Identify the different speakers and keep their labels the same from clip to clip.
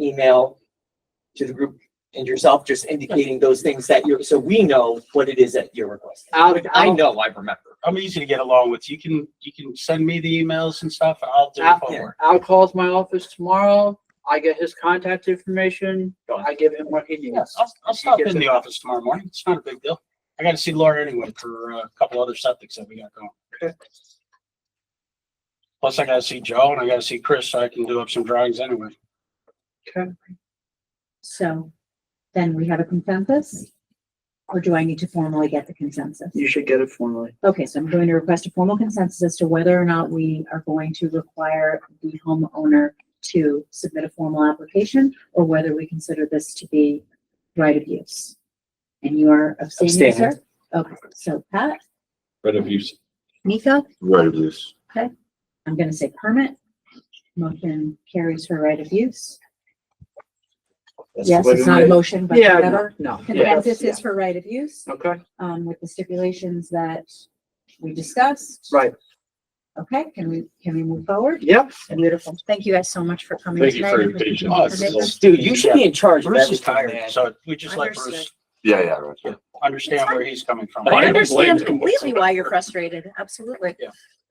Speaker 1: email to the group and yourself, just indicating those things that you're, so we know what it is that you're requesting.
Speaker 2: I'll,
Speaker 1: I
Speaker 2: I'll,
Speaker 1: know, I remember.
Speaker 3: I'm easy to get along with. You can, you can send me the emails and stuff and I'll do
Speaker 2: Yeah.
Speaker 3: the homework.
Speaker 2: I'll call my office tomorrow. I get his contact information. I give him what he
Speaker 3: Yes,
Speaker 2: needs.
Speaker 3: I'll, I'll stop
Speaker 2: gets
Speaker 3: in the
Speaker 2: it.
Speaker 3: office tomorrow morning. It's not a big deal. I gotta see Laura anyway for uh, a couple other subjects that we got going. Plus I gotta see Joe and I gotta see Chris so I can do up some drawings anyway.
Speaker 4: So then we have a consensus? Or do I need to formally get the consensus?
Speaker 2: You should get it formally.
Speaker 4: Okay, so I'm going to request a formal consensus as to whether or not we are going to require the homeowner to submit a formal application or whether we consider this to be right of use. And you are abstaining, sir? Okay, so Pat,
Speaker 5: Right of use.
Speaker 4: Nico,
Speaker 5: Right of use.
Speaker 4: I'm gonna say permit. Motion carries for right of use. Yes, it's not a motion, but
Speaker 2: Yeah, no,
Speaker 4: whatever.
Speaker 2: no. yeah,
Speaker 4: Consensus is for right of use.
Speaker 2: Okay,
Speaker 4: um, with the stipulations that we discussed.
Speaker 2: right.
Speaker 4: Okay, can we, can we move forward?
Speaker 2: Yep.
Speaker 4: Beautiful. Thank you guys so much for coming
Speaker 5: Thank you
Speaker 4: tonight.
Speaker 5: for your patience.
Speaker 3: Oh, this is-
Speaker 1: Dude, you should be in charge of
Speaker 3: Bruce is
Speaker 1: everything, man.
Speaker 3: tired, so we just let Bruce
Speaker 4: Understood.
Speaker 5: Yeah, yeah, right. yeah.
Speaker 3: understand where he's coming from.
Speaker 4: I
Speaker 5: Why don't blame
Speaker 4: understand
Speaker 5: you.
Speaker 4: completely why you're frustrated. Absolutely.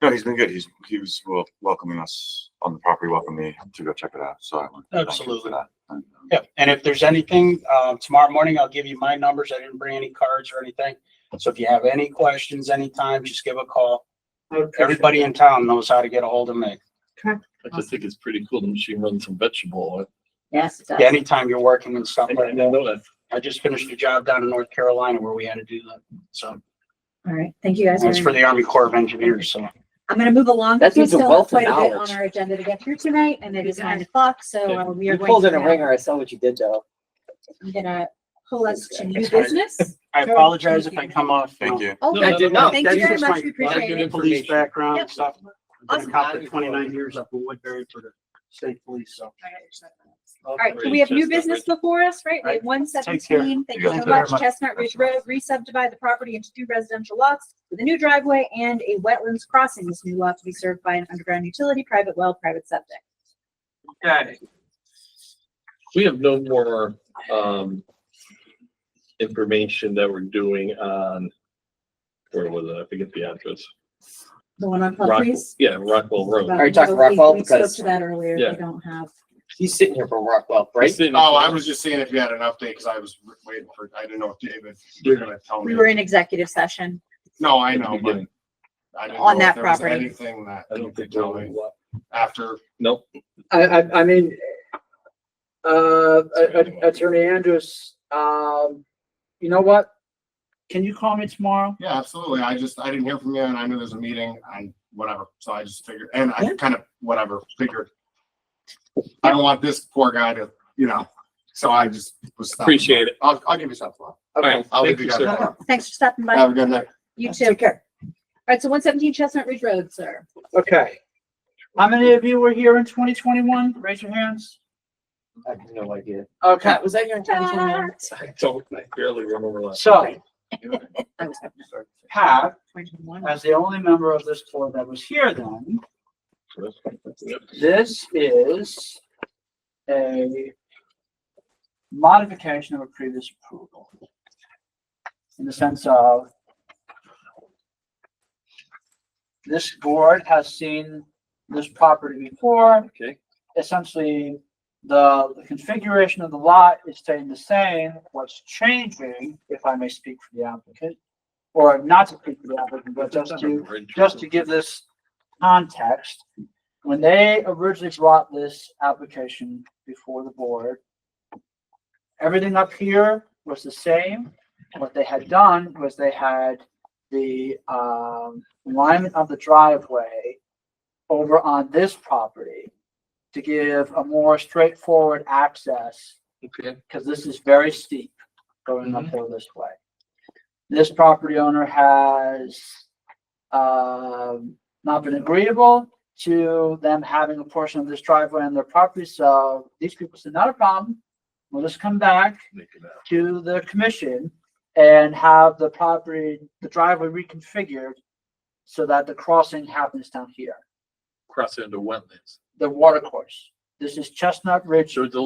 Speaker 6: No, he's been good. He's, he was wel- welcoming us on the property, welcoming me to go check it out. So I want to thank him
Speaker 3: Absolutely.
Speaker 6: for that. And, um,
Speaker 3: Yep, and if there's anything, uh, tomorrow morning, I'll give you my numbers. I didn't bring any cards or anything. So if you have any questions anytime, just give a call.
Speaker 2: I appreciate
Speaker 3: Everybody in town knows how to get a hold of me.
Speaker 5: I just think it's pretty cool. The machine runs some vegetable.
Speaker 4: Yes, it does.
Speaker 3: Anytime you're working and
Speaker 5: I
Speaker 3: stuff like
Speaker 5: didn't
Speaker 3: that.
Speaker 5: know that.
Speaker 3: I just finished a job down in North Carolina where we had to do that. So
Speaker 4: All right. Thank you guys.
Speaker 3: it's
Speaker 4: very
Speaker 3: for
Speaker 4: much.
Speaker 3: the Army Corps of Engineers. So
Speaker 4: I'm going to move along.
Speaker 1: That
Speaker 4: There's
Speaker 1: dude's a
Speaker 4: still
Speaker 1: wealth of
Speaker 4: quite a bit
Speaker 1: knowledge.
Speaker 4: On our agenda to get through tonight and it is nine o'clock, so uh, we are
Speaker 1: You
Speaker 4: going.
Speaker 1: pulled
Speaker 4: to
Speaker 1: in a
Speaker 4: now-
Speaker 1: ringer. I saw what you did though.
Speaker 4: I'm gonna pull us to new
Speaker 3: It's fine.
Speaker 4: business.
Speaker 3: I
Speaker 4: Sure.
Speaker 3: apologize if I come off.
Speaker 6: Thank you.
Speaker 4: Oh,
Speaker 5: No,
Speaker 3: I
Speaker 4: thank
Speaker 3: did
Speaker 4: you
Speaker 3: not.
Speaker 4: very
Speaker 3: That's just
Speaker 4: much.
Speaker 3: my-
Speaker 4: We
Speaker 3: my
Speaker 4: appreciate it.
Speaker 3: Police background
Speaker 4: Yep.
Speaker 3: and stuff. I've been
Speaker 1: Awesome.
Speaker 3: a cop for twenty-nine years up in Woodbury for the state police, so.
Speaker 4: All right, so we have new business before us, right? We have one
Speaker 3: Take care.
Speaker 4: seventeen, thank
Speaker 6: You
Speaker 4: you
Speaker 6: guys
Speaker 4: so
Speaker 6: take care.
Speaker 4: much, Chestnut Ridge Road, re-subdivide the property into two residential lots with a new driveway and a wetlands crossing. This new lot to be served by an underground utility, private well, private septic.
Speaker 3: Okay.
Speaker 5: We have no more, um, information that we're doing on, where was it? I forget the address.
Speaker 4: The one
Speaker 2: Oh,
Speaker 4: on
Speaker 5: Rock-
Speaker 4: Humphreys?
Speaker 5: Yeah, Rockwell Road.
Speaker 4: About-
Speaker 1: Are you talking
Speaker 4: we-
Speaker 1: Rockwell?
Speaker 4: We spoke
Speaker 1: Because-
Speaker 4: to that earlier,
Speaker 5: Yeah.
Speaker 4: we don't have,
Speaker 1: He's sitting here for Rockwell, right?
Speaker 5: It's in-
Speaker 7: Oh, I was just seeing if you had an update, because I was waiting for, I didn't know if David, you were gonna tell
Speaker 4: we
Speaker 7: me.
Speaker 4: were in executive session.
Speaker 7: No, I know, but I didn't know
Speaker 4: On
Speaker 7: if
Speaker 4: that
Speaker 7: there was
Speaker 4: property.
Speaker 7: anything that
Speaker 5: I
Speaker 7: you
Speaker 5: don't think.
Speaker 7: could tell me after.
Speaker 5: Nope.
Speaker 2: I, I, I mean, uh, a- a- Attorney Andrews, um, you know what? Can you call me tomorrow?
Speaker 7: Yeah, absolutely. I just, I didn't hear from you and I knew there's a meeting and whatever. So I just figured, and I
Speaker 1: Yeah.
Speaker 7: kind of, whatever, figured. I don't want this poor guy to, you know, so I just was. stopping by.
Speaker 5: Appreciate it.
Speaker 7: I'll, I'll give you something.
Speaker 2: Okay.
Speaker 7: I'll leave
Speaker 5: Thank
Speaker 7: you
Speaker 5: you,
Speaker 7: guys.
Speaker 5: sir.
Speaker 7: alone.
Speaker 4: Thanks for stopping by.
Speaker 7: Have a good night.
Speaker 4: You too. All
Speaker 1: care.
Speaker 4: right, so one seventeen Chestnut Ridge Road, sir.
Speaker 2: Okay. How many of you were here in twenty twenty-one? Raise your hands.
Speaker 1: I have no idea.
Speaker 2: Okay,
Speaker 1: Pat, was that your intention?
Speaker 4: Ta-da.
Speaker 5: I don't, I barely remember last.
Speaker 2: so
Speaker 4: I was having
Speaker 2: Pat,
Speaker 4: a 21.
Speaker 2: as the only member of this board that was here then,
Speaker 5: Yep.
Speaker 2: this is a modification of a previous approval. In the sense of this board has seen this property before.
Speaker 5: Okay.
Speaker 2: Essentially, the the configuration of the lot is staying the same. What's changing, if I may speak for the applicant, or not to speak for the applicant, but just to just to give this context, when they originally brought this application before the board, everything up here was the same. What they had done was they had the um, alignment of the driveway over on this property to give a more straightforward access
Speaker 5: Okay.
Speaker 2: because this is very steep going uphill this way. This property owner has um, not been agreeable to them having a portion of this driveway on their property, so these people said, not a problem. We'll just come back to the commission and have the property, the driveway reconfigured so that the crossing happens down here,
Speaker 5: Cross into wetlands.
Speaker 2: the water course. This is Chestnut Ridge
Speaker 5: So the